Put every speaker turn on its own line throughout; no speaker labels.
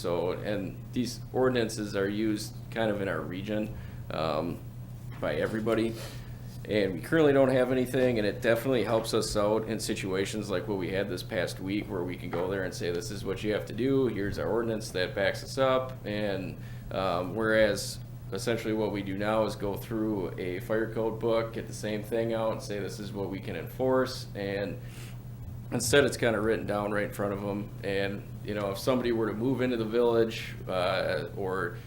So, and these ordinances are used kind of in our region um, by everybody. And we currently don't have anything, and it definitely helps us out in situations like what we had this past week, where we can go there and say, this is what you have to do, here's our ordinance that backs us up. And um, whereas essentially what we do now is go through a fire code book, get the same thing out, and say, this is what we can enforce. And Instead, it's kind of written down right in front of them, and, you know, if somebody were to move into the village, uh, or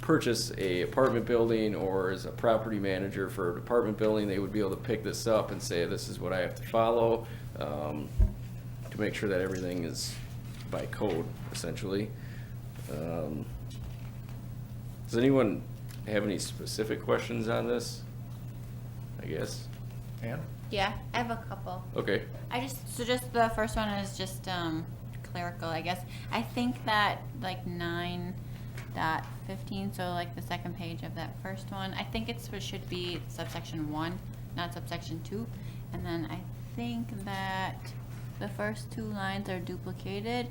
purchase a apartment building, or is a property manager for an apartment building, they would be able to pick this up and say, this is what I have to follow, um, to make sure that everything is by code, essentially. Um, Does anyone have any specific questions on this? I guess,
Ann?
Yeah, I have a couple.
okay,
I just, so just the first one is just, um, clerical, I guess. I think that like nine dot fifteen, so like the second page of that first one, I think it's, it should be subsection one, not subsection two. And then I think that the first two lines are duplicated.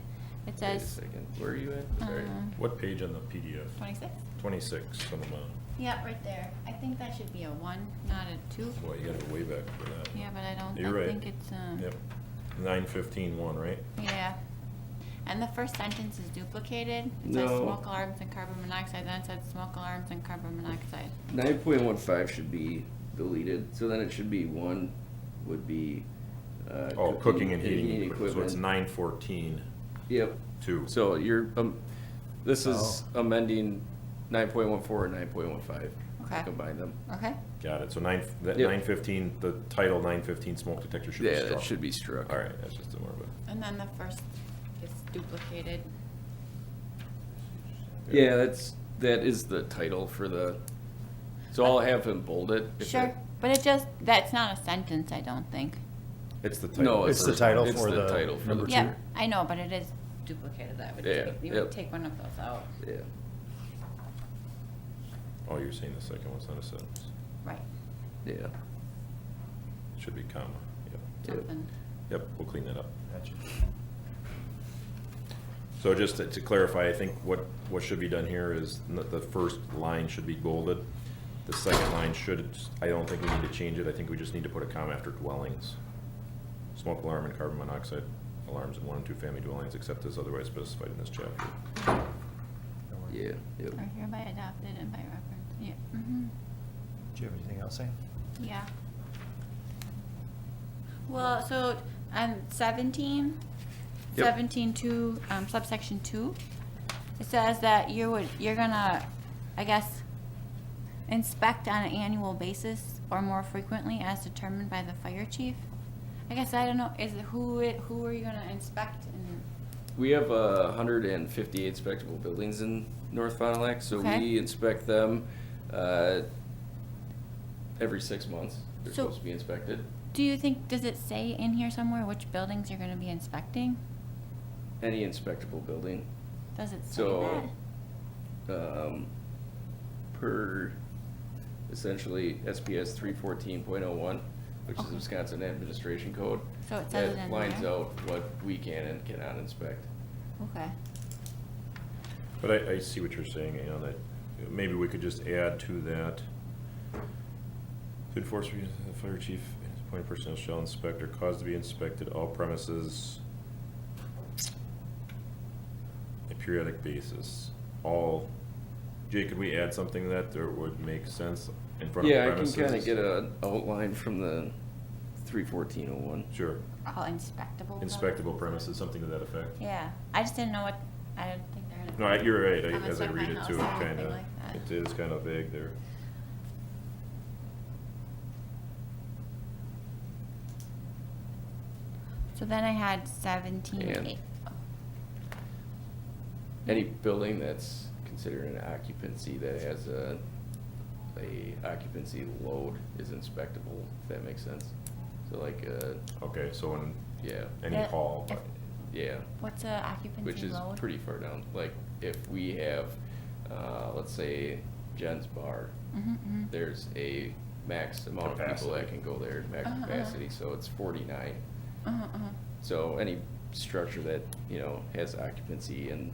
It
wait a
says,
second, where are you at? Sorry.
um,
What page on the PDF?
twenty-six?
Twenty-six on the bottom.
Yeah, right there. I think that should be a one, not a two.
Boy, you gotta go way back for that.
Yeah, but I don't,
You're
I
right.
think it's, um.
Yep, nine fifteen one, right?
Yeah. And the first sentence is duplicated. It says
No.
smoke alarms and carbon monoxide, then it says smoke alarms and carbon monoxide.
Nine point one five should be deleted, so then it should be one would be, uh.
Oh, cooking and heating, equipment,
equipment.
so it's nine fourteen,
Yep,
two.
so you're, um, this is
Oh.
amending nine point one four and nine point one five.
Okay.
Combine them.
Okay?
Got it, so nine, that
Yep.
nine fifteen, the title nine fifteen smoke detector should be
Yeah,
struck.
that should be struck.
All right, that's just a more of a.
And then the first is duplicated.
Yeah, that's, that is the title for the, so I'll have him bold it. if it-
Sure, but it just, that's not a sentence, I don't think.
It's the title.
No,
of
it's the
first
title
one.
It's for the the title for number the- two.
Yeah, I know, but it is duplicated. That would
Yeah,
take, you
yep.
would take one of those out.
Yeah,
Oh, you're saying the second one's not a sentence,
Right,
yeah.
It should be comma, yep,
Yep.
something.
yep, we'll clean that up. So just to- to clarify, I think what, what should be done here is n- the first line should be bolded. The second line should, I don't think we need to change it. I think we just need to put a comma after dwellings. Smoke alarm and carbon monoxide alarms in one and two family dwellings except as otherwise specified in this chapter.
Yeah, yep.
Are hereby adopted and by reference, yeah, mhm.
Do you have anything else, Ann?
Yeah. Well, so, um, seventeen,
Yep.
seventeen two, um, subsection two, it says that you would, you're gonna, I guess, inspect on an annual basis or more frequently as determined by the fire chief. I guess I don't know, is it who, it- who are you gonna inspect and,
We have a hundred and fifty-eight inspectable buildings in North Fond du Lac, so
Okay.
we inspect them, uh, every six months. They're
So-
supposed to be inspected.
do you think, does it say in here somewhere which buildings you're gonna be inspecting?
Any inspectable building,
Does it say
so,
that?
um, per essentially SPS three fourteen point oh one, which is
Okay.
Wisconsin Administration Code.
So it says it in
That lines
there?
out what we can and cannot inspect.
Okay,
But I, I see what you're saying, you know, that maybe we could just add to that. To enforce, re- the fire chief, his appointed personnel shall inspect or cause to be inspected all premises a periodic basis, all, Jay, could we add something to that, that would make sense in front of
Yeah, I can
premises?
kinda get a outline from the three fourteen oh one.
Sure,
all inspectable. buildings?
inspectable premises, something to that effect.
Yeah, I just didn't know what, I don't think they're.
No, I- you're right,
I'm
I- as I
inside my
read it
house,
too,
I
it
don't think
kinda,
like that.
it is kinda vague there.
So then I had seventeen
And-
eight. oh,
Any building that's considered an occupancy that has a, a occupancy load is inspectable, if that makes sense. So like, uh,
Okay, so in
yeah,
any
Yeah.
hall, but-
yeah,
What's a
which
occupancy
is
load?
pretty far down. Like, if we have, uh, let's say Jen's Bar,
Mm-hmm,
there's a max amount of people that
Capacity.
can go there, max
Uh-huh, uh-huh.
capacity, so it's forty-nine.
uh-huh, uh-huh.
So any structure that, you know, has occupancy and